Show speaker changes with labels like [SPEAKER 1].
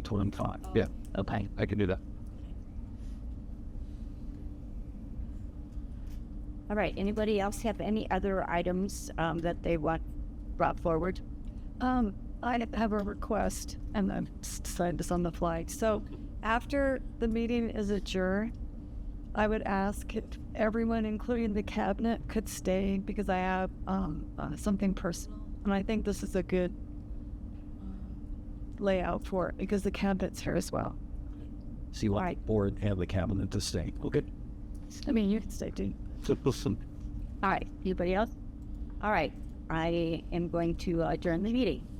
[SPEAKER 1] told him five. Yeah,
[SPEAKER 2] Okay.
[SPEAKER 1] I can do that.
[SPEAKER 2] All right. Anybody else have any other items um, that they want brought forward?
[SPEAKER 3] Um, I have a request, and I decided this on the fly. So, after the meeting is adjourned, I would ask if everyone, including the cabinet, could stay because I have um, uh, something personal, and I think this is a good layout for it because the cabinet's here as well.
[SPEAKER 1] So you want
[SPEAKER 2] Right.
[SPEAKER 1] the board and the cabinet to stay. Okay.
[SPEAKER 3] I mean, you can stay too.
[SPEAKER 1] So listen,
[SPEAKER 2] All right. Anybody else? All right. I am going to adjourn the meeting.